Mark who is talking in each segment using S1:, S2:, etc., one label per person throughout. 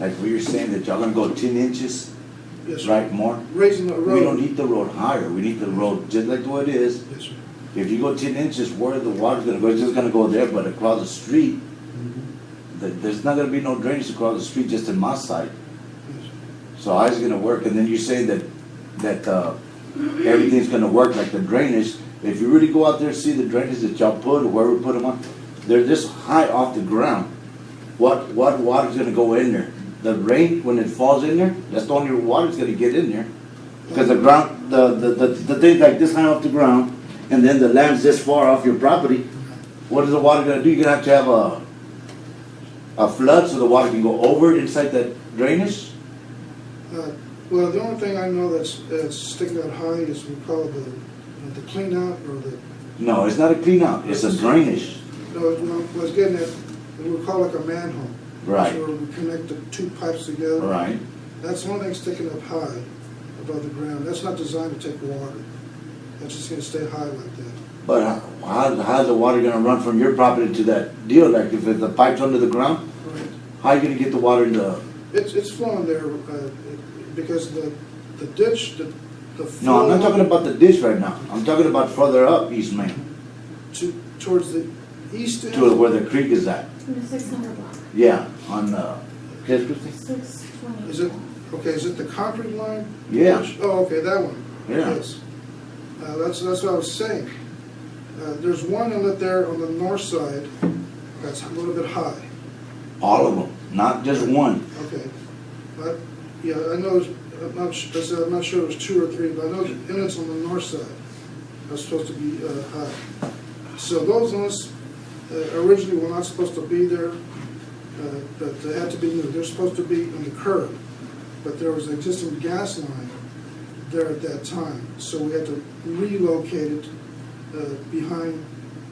S1: Like we were saying that y'all gonna go ten inches,
S2: Yes, sir.
S1: right, more?
S2: Raising the
S1: We don't
S2: road.
S1: need the road higher, we need the road just like the way it is.
S2: Yes, sir.
S1: If you go ten inches, where the water's gonna go, it's just gonna go there, but across the street, th- there's not gonna be no drainage across the street, just in my side.
S2: Yes, sir.
S1: So how's it gonna work? And then you say that, that, uh, everything's gonna work like the drainage. If you really go out there, and see the drainage that y'all put, or where we put them on, they're this high off the ground. What, what water's gonna go in there? The rain, when it falls in there, that's the only water's gonna get in there. Cause the ground, the, the, the, the thing's like this high off the ground, and then the land's this far off your property. What is the water gonna do? You're gonna have to have a, a flood so the water can go over inside that drainage?
S2: Uh, Well, the only thing I know that's, that's sticking out high is we call it the, you know, the clean out or the,
S1: No, it's not a cleanup, it's a drainage.
S2: no, no, I was getting at, we call it like a manhole. So
S1: Right,
S2: where we connect the two pipes together.
S1: right.
S2: That's one thing sticking up high above the ground. That's not designed to take water. That's just gonna stay high like that.
S1: But how- how, how's the water gonna run from your property to that deal? Like if the pipe's under the ground,
S2: Right.
S1: how you gonna get the water in the,
S2: It's, it's flowing there, uh, it- because the, the ditch, the, the
S1: no,
S2: flow.
S1: I'm not talking about the ditch right now. I'm talking about further up East Main,
S2: To, towards the east end.
S1: to where the creek is at.
S3: The six hundred block,
S1: Yeah, on, uh, yes, Christie?
S3: six twenty.
S2: Is it, okay, is it the concrete line?
S1: Yeah.
S2: Oh, okay, that one.
S1: Yeah.
S2: Yes. Uh, that's, that's what I was saying. Uh, there's one inlet there on the north side that's a little bit high.
S1: all of them, not just one.
S2: Okay. But, yeah, I know, it's- I'm not, su- I said I'm not sure it was two or three, but I know the inlets on the north side are supposed to be, uh, high. So those ones, uh, originally were not supposed to be there, uh, but they had to be, they're supposed to be on the curb. But there was an existing gas line there at that time, so we had to relocate it, uh, behind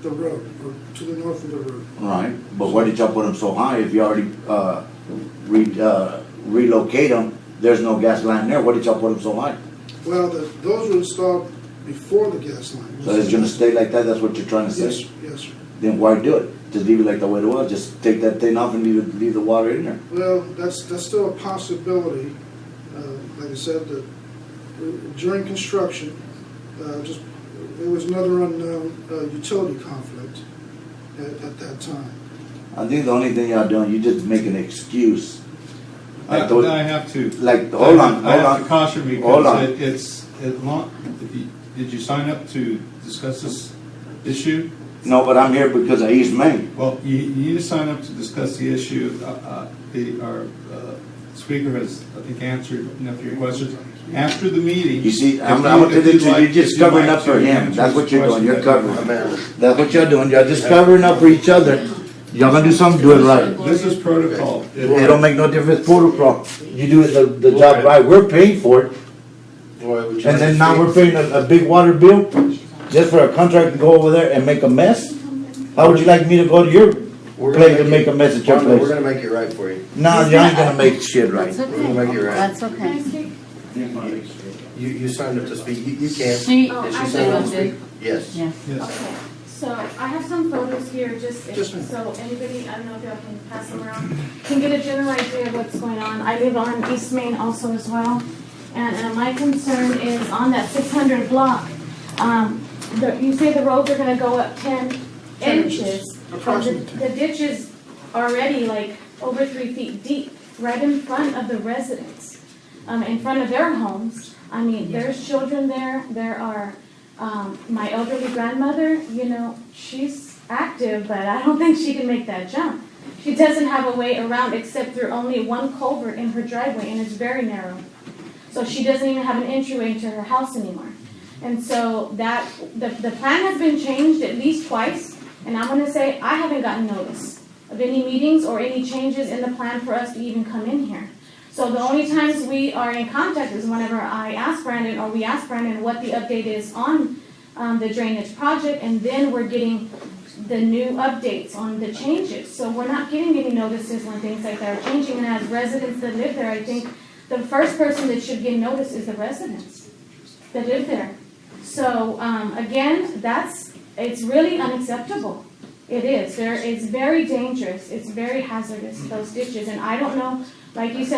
S2: the road, or to the north of the road.
S1: Right, but why did y'all put them so high if you already, uh, re, uh, relocate them? There's no gas line there, why did y'all put them so high?
S2: Well, the, those were installed before the gas line.
S1: So it's gonna stay like that, that's what you're trying to say?
S2: Yes, yes. sir.
S1: then why do it? Just leave it like the way it was. Just take that thing off and leave it, leave the water in there.
S2: Well, that's, that's still a possibility. Uh, Like I said, the- during construction, uh, just, it was another unknown uh, utility conflict at, at that time.
S1: I think the only thing y'all doing, you just make an excuse. I
S4: I,
S1: thought-
S4: I have to.
S1: Like, hold on,
S4: I
S1: hold
S4: have
S1: on.
S4: to caution
S1: Hold on.
S4: because it, it's, it long, if you- did you sign up to discuss this issue?
S1: No, but I'm here because of East Main.
S4: Well, you, you need to sign up to discuss the issue. Uh, uh, the, our, uh, speaker has, I think, answered enough of your questions. After the meeting.
S1: You see,
S4: if
S1: I'm,
S4: you-
S1: I'm gonna
S4: if
S1: tell you,
S4: you'd like-
S1: you're
S4: if
S1: just
S4: you'd
S1: covering
S4: like
S1: up for
S4: to
S1: him.
S4: answer
S1: That's
S4: his
S1: what you're doing. You're
S4: question,
S1: covering. That's what y'all doing. Y'all just covering up for each other. Y'all gonna do something, do it right.
S4: This is protocol.
S1: It don't make no difference, protocol. You do it the, the job right. We're paying for it. And then now we're paying a, a big water bill just for a contract to go over there and make a mess? How would you like me to go to your
S5: We're gonna
S1: place and make a mess at your
S5: Wanda, We're
S1: place?
S5: gonna make it right for you.
S1: Nah, you ain't gonna make shit right.
S6: That's
S5: We're gonna make
S6: okay.
S5: it right.
S6: That's okay.
S5: You, you signed up to speak, you, you can.
S6: She,
S3: Oh,
S5: Did
S3: I
S5: she sign up to
S6: did.
S5: speak? Yes.
S6: yeah.
S4: Yes.
S3: Okay, so I have some photos here, just if-
S2: Just a minute.
S3: so anybody, I don't know if y'all can pass them around, can get a general idea of what's going on. I live on East Main also as well, and, uh my concern is on that six hundred block. Um, the, you say the roads are gonna go up ten
S2: 10
S3: inches. but the-
S2: Approximately ten.
S3: The ditch is already like over three feet deep, right in front of the residents, um, in front of their homes. I mean, there's children there, there are, um, my elderly grandmother, you know, she's active, but I don't think she can make that jump. She doesn't have a way around except through only one culvert in her driveway, and it's very narrow. So she doesn't even have an entryway into her house anymore. And so that, the, the plan has been changed at least twice, and I'm gonna say, I haven't gotten notice of any meetings or any changes in the plan for us to even come in here. So the only times we are in contact is whenever I ask Brandon, or we ask Brandon what the update is on, um, the drainage project, and then we're getting the new updates on the changes. So we're not getting any notices when things like that are changing, and as residents that live there, I think the first person that should get notice is the residents that live there. So, um, again, that's, it's really unacceptable. It is, there, it's very dangerous, it's very hazardous, those ditches, and I don't know Like you said,